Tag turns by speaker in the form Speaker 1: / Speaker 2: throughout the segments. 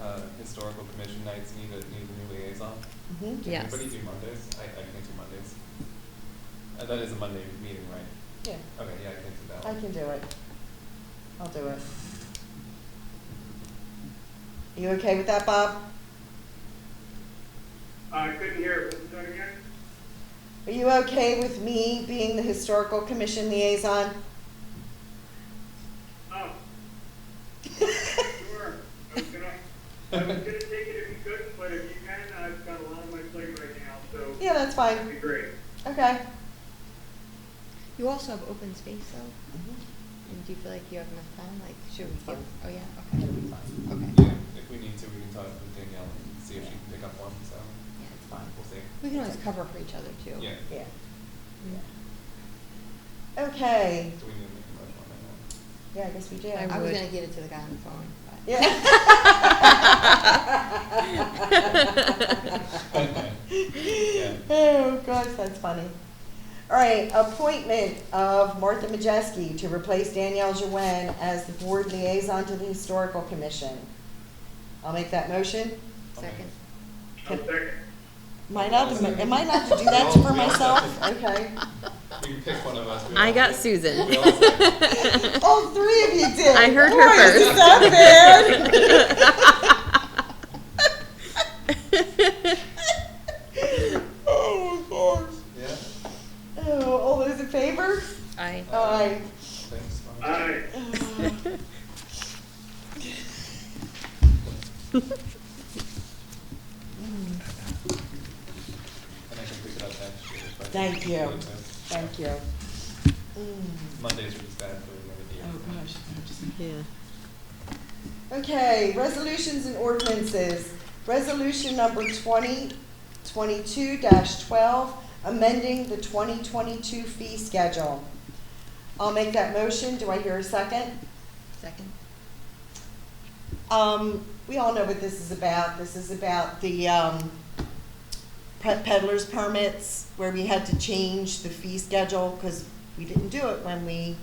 Speaker 1: uh, historical commission nights need a, need a new liaison?
Speaker 2: Mhm.
Speaker 1: Can
Speaker 3: Yes.
Speaker 1: Anybody do Mondays? I, I can't do Mondays. Uh, that is a Monday meeting, right?
Speaker 2: Yeah,
Speaker 1: Okay, yeah, I can't do that
Speaker 2: I
Speaker 1: one.
Speaker 2: can do it. I'll do it. Are you okay with that, Bob?
Speaker 4: I couldn't hear, what was that again?
Speaker 2: Are you okay with me being the historical commission liaison?
Speaker 4: Oh, sure, I was gonna, I was gonna take it if you couldn't, but if you can, I've got a lot on my plate right now, so
Speaker 2: Yeah, that's
Speaker 4: that'd
Speaker 2: fine.
Speaker 4: be great.
Speaker 2: Okay.
Speaker 3: You also have open space though, and do you feel like you have enough time, like, should we give, oh yeah, okay.
Speaker 2: It'll be fine.
Speaker 3: Okay,
Speaker 1: Yeah, if we need to, we can talk with Danielle and see if she can pick up one, so
Speaker 3: yeah, it's fine.
Speaker 1: we'll see.
Speaker 3: We can always cover for each other too.
Speaker 1: Yeah,
Speaker 2: Yeah. Okay.
Speaker 1: do we need to make a motion on that one?
Speaker 2: Yeah, I guess we do.
Speaker 3: I was
Speaker 5: would.
Speaker 3: gonna give it to the guy on the phone, but.
Speaker 2: Yeah. Oh, gosh, that's funny. All right, appointment of Martha Majeski to replace Danielle Jouin as the board liaison to the Historical Commission. I'll make that motion.
Speaker 1: Okay.
Speaker 3: Second.
Speaker 4: I'll second.
Speaker 2: Am I not, am I not to do that for myself? Okay.
Speaker 1: You can pick one of us. We
Speaker 5: I
Speaker 1: all-
Speaker 5: got Susan.
Speaker 1: we all say-
Speaker 2: All three of you did.
Speaker 5: I heard her
Speaker 2: Boy, is
Speaker 5: first.
Speaker 2: that bad? Oh, gosh.
Speaker 1: Yeah,
Speaker 2: Oh, all those in favor?
Speaker 5: I.
Speaker 2: Aye.
Speaker 1: thanks. Mom.
Speaker 4: Aye,
Speaker 1: And I can pick it up next year. if I-
Speaker 2: Thank you.
Speaker 1: if I-
Speaker 2: Thank you. Mm.
Speaker 1: Mondays are just bad for the
Speaker 2: Oh,
Speaker 1: end of the year.
Speaker 2: gosh.
Speaker 5: Yeah.
Speaker 2: Okay, resolutions and ordinances. Resolution number twenty, twenty-two twelve, amending the twenty twenty-two fee schedule. I'll make that motion. Do I hear a second?
Speaker 3: Second.
Speaker 2: Um, we all know what this is about. This is about the, um, pe- peddler's permits, where we had to change the fee schedule, because we didn't do it when we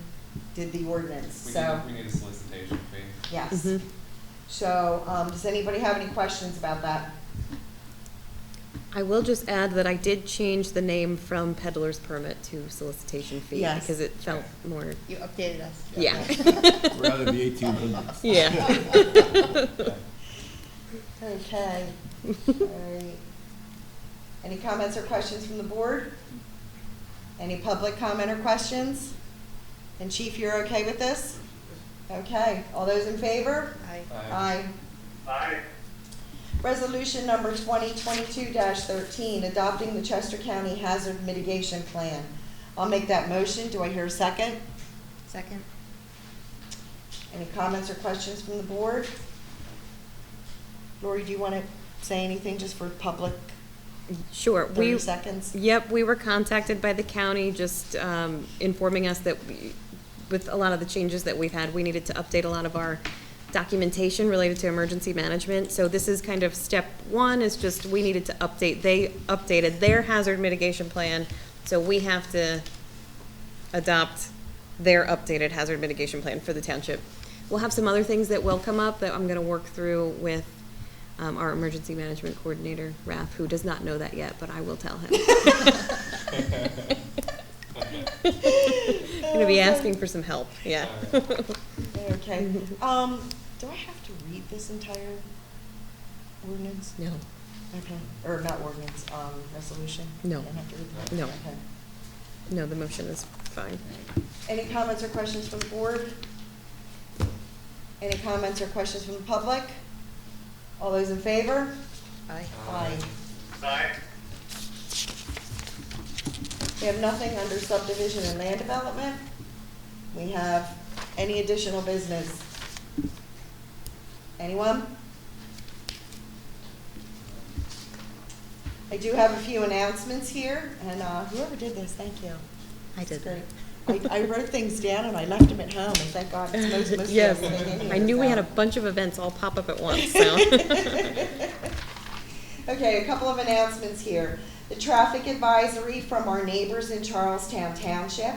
Speaker 2: did the ordinance,
Speaker 1: We
Speaker 2: so,
Speaker 1: need, we need a solicitation fee.
Speaker 2: yes.
Speaker 5: Mhm.
Speaker 2: So, um, does anybody have any questions about that?
Speaker 5: I will just add that I did change the name from peddler's permit to solicitation fee
Speaker 2: Yes.
Speaker 5: because it felt more,
Speaker 3: You updated us.
Speaker 5: yeah.
Speaker 6: Rather the eighteen hundreds.
Speaker 5: Yeah.
Speaker 2: Okay, alright. Any comments or questions from the board? Any public comment or questions? And Chief, you're okay with this? Okay, all those in favor?
Speaker 3: Aye.
Speaker 2: Uh,
Speaker 1: Aye.
Speaker 4: aye,
Speaker 2: Resolution number twenty twenty-two thirteen, adopting the Chester County Hazard Mitigation Plan. I'll make that motion. Do I hear a second?
Speaker 3: Second.
Speaker 2: Any comments or questions from the board? Lori, do you want to say anything just for public,
Speaker 5: Sure.
Speaker 2: thirty
Speaker 5: We,
Speaker 2: seconds?
Speaker 5: Yep, we were contacted by the county, just um, informing us that we- with a lot of the changes that we've had, we needed to update a lot of our documentation related to emergency management. So this is kind of step one, is just we needed to update, they updated their hazard mitigation plan, so we have to adopt their updated hazard mitigation plan for the township. We'll have some other things that will come up that I'm gonna work through with um, our emergency management coordinator, Raph, who does not know that yet, but I will tell him. I'm gonna be
Speaker 2: Oh,
Speaker 5: asking for some help, yeah.
Speaker 2: Okay, um, do I have to read this entire ordinance?
Speaker 5: No,
Speaker 2: Okay, or not ordinance, um, resolution?
Speaker 5: No.
Speaker 2: I don't have to read that?
Speaker 5: No.
Speaker 2: Okay.
Speaker 5: no, the motion is fine.
Speaker 2: Any comments or questions from the board? Any comments or questions from the public? All those in favor?
Speaker 3: Aye.
Speaker 2: Aye.
Speaker 4: aye,
Speaker 2: We have nothing under subdivision and land development. We have any additional business? Anyone? I do have a few announcements here, and uh, whoever did this, thank you.
Speaker 3: I did
Speaker 2: It's
Speaker 3: that.
Speaker 2: great. I, I wrote things down and I left them at home, and thank God, it's most, most of
Speaker 5: Yes,
Speaker 2: everything in here
Speaker 5: I knew we
Speaker 2: is
Speaker 5: had a
Speaker 2: out.
Speaker 5: bunch of events all pop up at once, so.
Speaker 2: Okay, a couple of announcements here. The traffic advisory from our neighbors in Charlestown Township.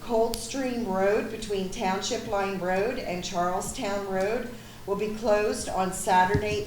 Speaker 2: Coldstream Road between Township Line Road and Charlestown Road will be closed on Saturday,